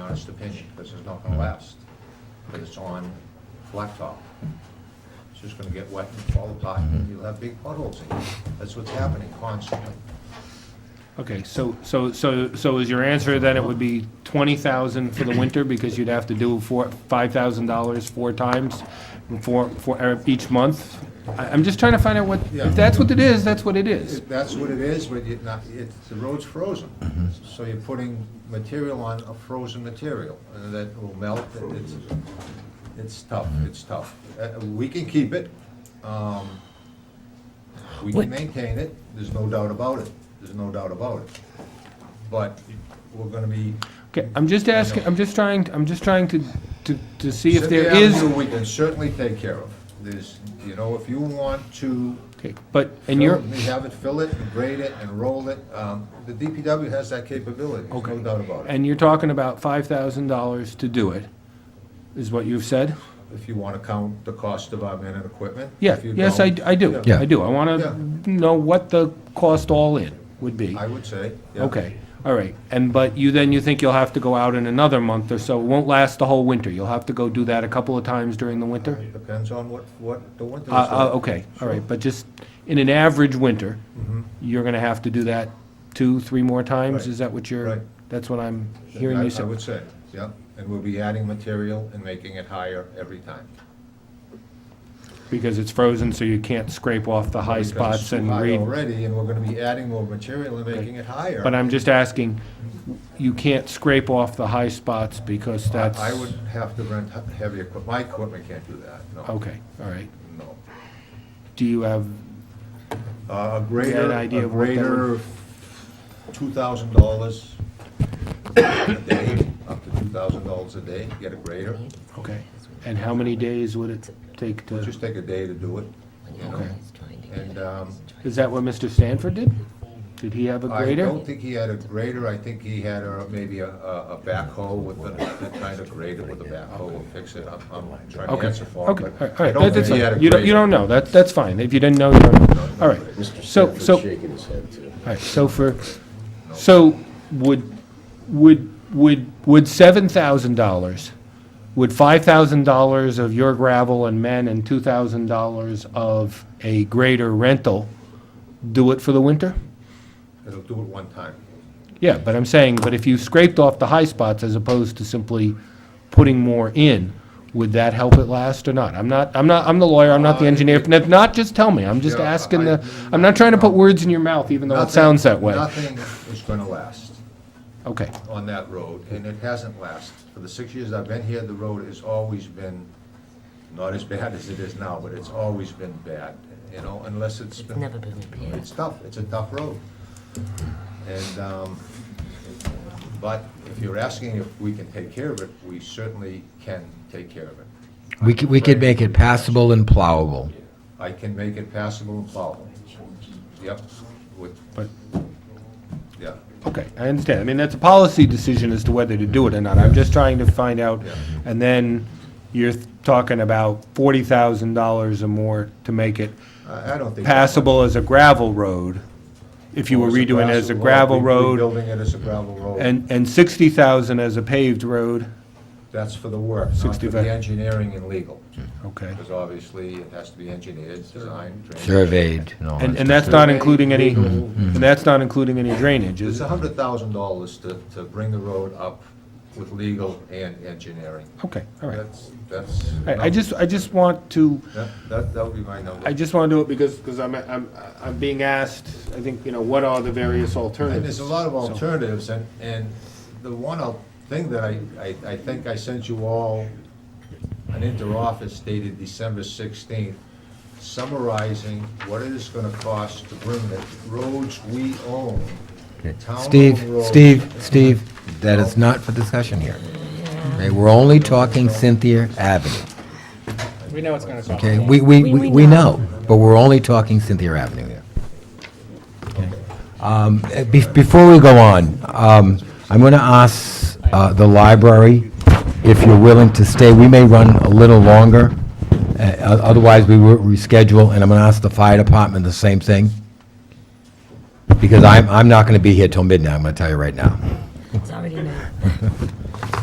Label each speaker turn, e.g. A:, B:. A: honest opinion, this is not gonna last, because it's on blacktop. It's just gonna get wet and fall apart, and you'll have big potholes in it. That's what's happening constantly.
B: Okay, so, so, so, so is your answer then it would be twenty thousand for the winter, because you'd have to do four, five thousand dollars four times, for, for each month? I, I'm just trying to find out what,
A: Yeah.
B: if that's what it is, that's what it is.
A: If That's what it is, but you're not, it's, the road's frozen.
B: Mm-hmm.
A: So you're putting material on a frozen material, and that will melt, and it's, it's tough,
B: Mm-hmm.
A: it's tough. Uh, we can keep it, um, we
C: What-
A: can maintain it, there's no doubt about it, there's no doubt about it. But we're gonna be,
B: Okay, I'm just asking, I'm just trying, I'm just trying to, to, to see if
A: Cynthia
B: there is,
A: Avenue, we can certainly take care of. There's, you know, if you want to
B: okay, but, and
A: Fill-
B: you're,
A: We have it, fill it, and grade it, and roll it. Um, The DPW has that capability, there's no
B: Okay.
A: doubt about it,
B: and you're talking about five thousand dollars to do it, is what you've said?
A: if you want to count the cost of our men and equipment.
B: Yeah,
A: If you
B: yes, I,
A: don't,
B: I do,
C: Yeah.
B: I do, I
A: Yeah.
B: wanna know what the cost all in would be.
A: I would say, yeah.
B: Okay, all right, and, but you, then you think you'll have to go out in another month or so, it won't last the whole winter, you'll have to go do that a couple of times during the winter?
A: Depends on what, what the winter is.
B: Uh, uh,
A: like.
B: okay, all right, but just, in an average winter,
A: Mm-hmm.
B: you're gonna have to do that two, three more times,
A: Right,
B: is that what you're,
A: right.
B: that's what I'm hearing
A: I-
B: you
A: I
B: say?
A: would say, yeah, and we'll be adding material and making it higher every time.
B: Because it's frozen, so you can't scrape off the high
A: Because it's
B: spots
A: too
B: and
A: high
B: read.
A: Already, and we're going to be adding more material and making it higher.
B: But I'm just asking, you can't scrape off the high spots because
A: I-
B: that's.
A: I would have to rent he- heavy equipment, my equipment can't do that, no,
B: Okay, all right,
A: no.
B: do you have,
A: Uh, A
B: you had
A: greater,
B: an idea
A: a
B: of what that
A: greater two thousand dollars a day, up to two thousand dollars a day, get a grader.
B: okay, and how many days would it take to?
A: Just take a day to do it, you know.
B: Okay.
A: And, um,
B: Is that what Mr. Stanford did? Did he have a
A: I
B: grader?
A: don't think he had a grader, I think he had a, maybe a, a a backhoe with a, that kind of grader with a backhoe will fix it. I'm, I'm trying to
B: Okay,
A: answer for him,
B: okay,
A: but
B: all
A: I
B: right,
A: don't
B: that-
A: think
B: that's
A: he had a
B: fine.
A: grader.
B: You don't, you don't know, that, that's fine, if you didn't know, you don't know. All right,
D: Mr.
B: so,
D: Stanford's
B: so,
D: shaking his head, too.
B: all right, so for, so would, would, would, would seven thousand dollars, would five thousand dollars of your gravel and men and two thousand dollars of a grader rental do it for the winter?
A: It'll do it one time.
B: Yeah, but I'm saying, but if you scraped off the high spots as opposed to simply putting more in, would that help it last or not? I'm not, I'm not, I'm the lawyer, I'm not the
A: Uh,
B: engineer. If not, just tell me. I'm just
A: Yeah,
B: asking the,
A: I-
B: I'm not trying to put words in your mouth, even though it
A: Nothing-
B: sounds that way.
A: Nothing is gonna last.
B: Okay,
A: on that road, and it hasn't lasted. For the six years I've been here, the road has always been, not as bad as it is now, but it's always been bad, you know, unless it's
C: It's
A: been,
C: never been repaired.
A: it's tough, it's a tough road. And, um, but if you're asking if we can take care of it, we certainly can take care of it.
E: We could, we could make it passable and plowable.
A: I can make it passable and plowable. Yep, with,
B: but,
A: yeah.
B: okay, I understand. I mean, that's a policy decision as to whether to do it or not. I'm just trying to find out.
A: Yeah.
B: And then you're talking about forty thousand dollars or more to make it
A: I I don't think.
B: passable as a gravel road, if you were
A: Or it's
B: redoing it as a gravel
A: grass- or
B: road,
A: Rebuilding it as a gravel road.
B: and, and sixty thousand as a paved road,
A: That's for the work, not for
B: 65.
A: the engineering and legal,
B: okay.
A: because obviously it has to be engineered, designed, drained.
E: Surveyed and all
B: And,
E: that.
B: and that's not including any, and that's not including any drainage,
A: It's
B: is
A: a
B: it?
A: hundred thousand dollars to, to bring the road up with legal and engineering.
B: Okay, all right.
A: That's, that's,
B: All right, I just, I just want to,
A: that, that that would be my number.
B: I just want to do it because, because I'm, I'm, I'm being asked, I think, you know, what are the various alternatives?
A: And there's a lot of
B: So-
A: alternatives, and, and the one al- thing that I, I, I think I sent you all an interoffice dated December sixteenth, summarizing what it is gonna cost to bring the roads we own, town-owned
E: Steve,
A: roads-
E: Steve, Steve, that is not for discussion here. Okay, we're only talking Cynthia Avenue,
F: We know it's gonna cost.
E: okay? We, we, we we know, but we're only talking Cynthia Avenue here. Um, eh, be- Before we go on, um, I'm going to ask uh, the library if you're willing to stay. We may run a little longer, eh, o- otherwise we will reschedule, and I'm going to ask the fire department the same thing, because I'm, I'm not going to be here till midnight, I'm going to tell you right now.
C: It's already now.